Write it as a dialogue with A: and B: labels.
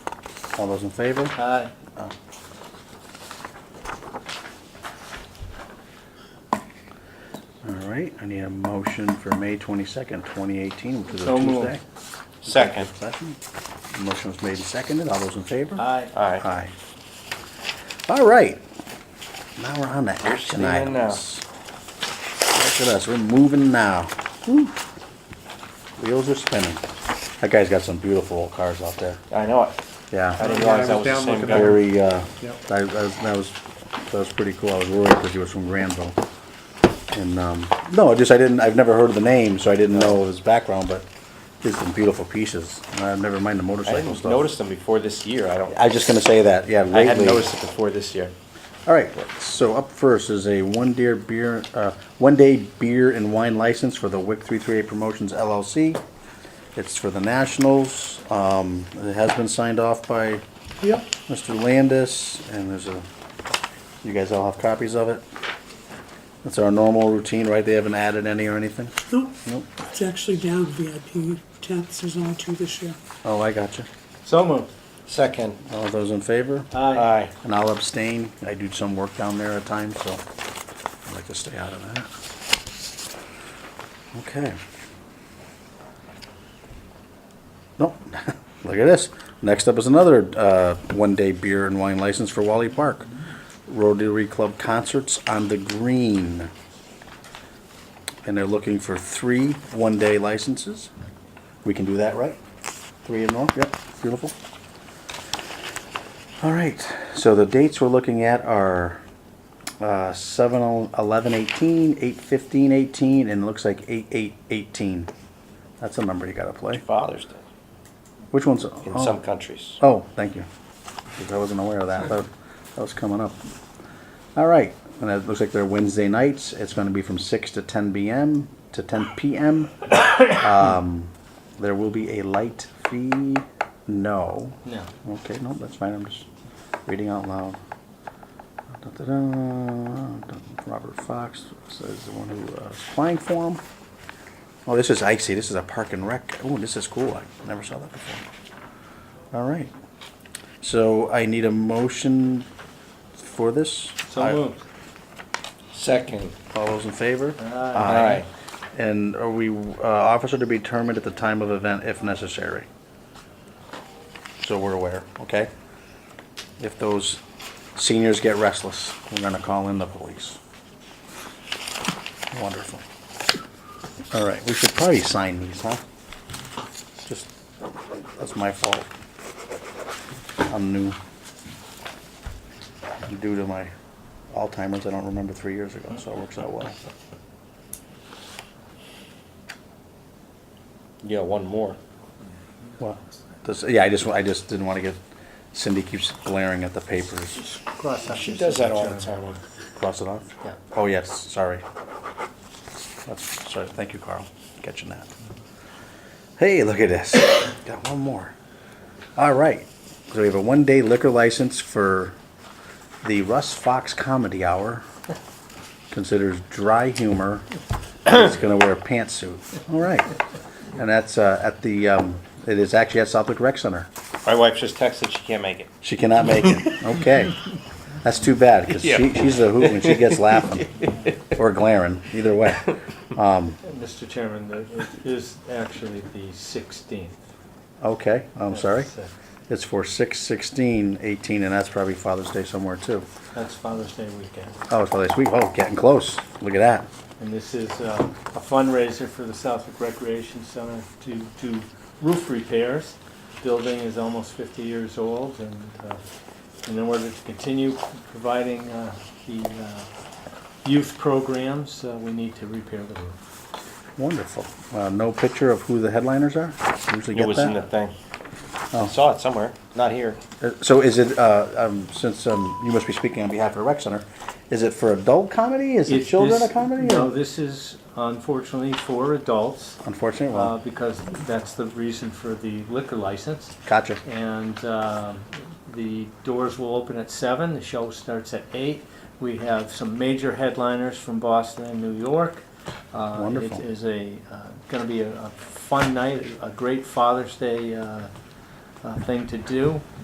A: All those in favor?
B: Aye.
A: All right, I need a motion for May twenty-second, twenty eighteen, which is a
B: So moved.
A: Tuesday.
C: Second.
A: Session. Motion was made and seconded. All those in favor?
B: Aye.
C: Aye.
A: Aye. All right. Now we're on to action
C: steaming now.
A: items. Look at us, we're moving now. Whew. Wheels are spinning. That guy's got some beautiful old cars out there.
C: I know it. I
A: Yeah.
C: didn't
D: Yeah, I
C: realize that
D: was
C: was the
D: down
C: same
D: looking
C: guy.
A: Very, uh,
D: Yep.
A: I, I, was- that was, that was pretty cool. I was worried because he was from Granville. And, um, no, I just, I didn't, I've never heard of the name, so I didn't know his background, but just some beautiful pieces. Uh, never mind the
C: I
A: motorcycle
C: didn't
A: stuff.
C: notice them before this year. I don't,
A: I was just gonna say that, yeah,
C: I hadn't
A: lately-
C: noticed it before this year.
A: All right, so up first is a one deer beer, uh, one day beer and wine license for the WIC three three eight Promotions LLC. It's for the Nationals, um, it has been signed off by
D: Yep.
A: Mr. Landis, and there's a, you guys all have copies of it? That's our normal routine, right? They haven't added any or anything?
E: Nope,
A: Nope.
E: it's actually down VIP tenths, there's only two this year.
A: Oh, I got you.
B: So moved.
C: Second.
A: All those in favor?
B: Aye.
C: Aye.
A: And I'll abstain. I do some work down there at times, so I'd like to stay out of that. Okay. Nope, look at this. Next up is another uh, one-day beer and wine license for Wally Park. Rotary Club Concerts on the Green. And they're looking for three one-day licenses. We can do that, right? Three and more, yep, beautiful. All right, so the dates we're looking at are uh, 7 11 18, 8 15 18, and it looks like 8 8 18. That's a number you got to play.
C: Father's Day
A: Which one's?
C: in
A: oh.
C: some countries.
A: Oh, thank you. 'Cause I wasn't aware of that. That that was coming up. All right, and it looks like they're Wednesday nights. It's going to be from 6 to 10 p.m. to 10 p.m. um, there will be a light fee. No.
B: No.
A: Okay, no, that's fine, I'm just reading out loud. Da-da-da, Robert Fox says the one who uh, is applying for him. Oh, this is icy, this is a park and rec, oh, this is cool, I never saw that before. All right, so I need a motion for this?
B: So
A: I-
B: moved.
C: Second.
A: All those in favor?
C: Aye.
A: And are we, uh, officer to be determined at the time of event if necessary? So we're aware, okay? If those seniors get restless, we're gonna call in the police. Wonderful. All right, we should probably sign these, huh? Just, that's my fault. I'm new. Due to my Alzheimer's, I don't remember three years ago, so it works out well.
C: Yeah, one more.
A: Well, this, yeah, I just, I just didn't want to get, Cindy keeps glaring at the papers.
B: Cross out.
C: She does that all the time.
A: Cross it off?
B: Yeah.
A: Oh, yes, sorry. That's, sorry, thank you, Carl, catching that. Hey, look at this, got one more. All right, so we have a one-day liquor license for the Russ Fox Comedy Hour. Considers dry humor, He's gonna wear a pantsuit, all right. And that's, uh, at the, um, it is actually at Southwick Rec Center.
C: My wife just texted, she can't make it.
A: She cannot make it. Okay. That's too bad, because she,
C: Yeah.
A: she's a hoot when she gets laughing or glaring, either way.
B: Mr. Chairman, the- it is actually the sixteenth. uh,
A: Okay, I'm sorry. It's for 6, 16, 18, and that's probably Father's Day somewhere too.
B: That's Father's Day weekend.
A: Oh, it's Father's Week. Oh, getting close. Look at that.
B: And this is uh, a fundraiser for the Southwick Recreation Center to do roof repairs. Building is almost 50 years old, and uh, and in order to continue providing uh, the uh, youth programs, uh, we need to repair the roof.
A: Wonderful. Uh, no picture of who the headliners are? Usually
C: It
A: get
C: was in the
A: that.
C: thing.
A: Oh.
C: I saw it somewhere, not here.
A: Uh, So is it, uh, um, since, um, you must be speaking on behalf of the rec center, is it for adult comedy? Is it
B: If
A: children a
B: this-
A: comedy?
B: No,
A: or-
B: this is unfortunately for adults,
A: Unfortunately,
B: uh,
A: well,
B: because that's the reason for the liquor license.
A: gotcha.
B: and um, the doors will open at seven. The show starts at eight. We have some major headliners from Boston and New York. Uh,
A: Wonderful.
B: It is a uh, going to be a, a fun night, a great Father's Day uh, uh, thing to do.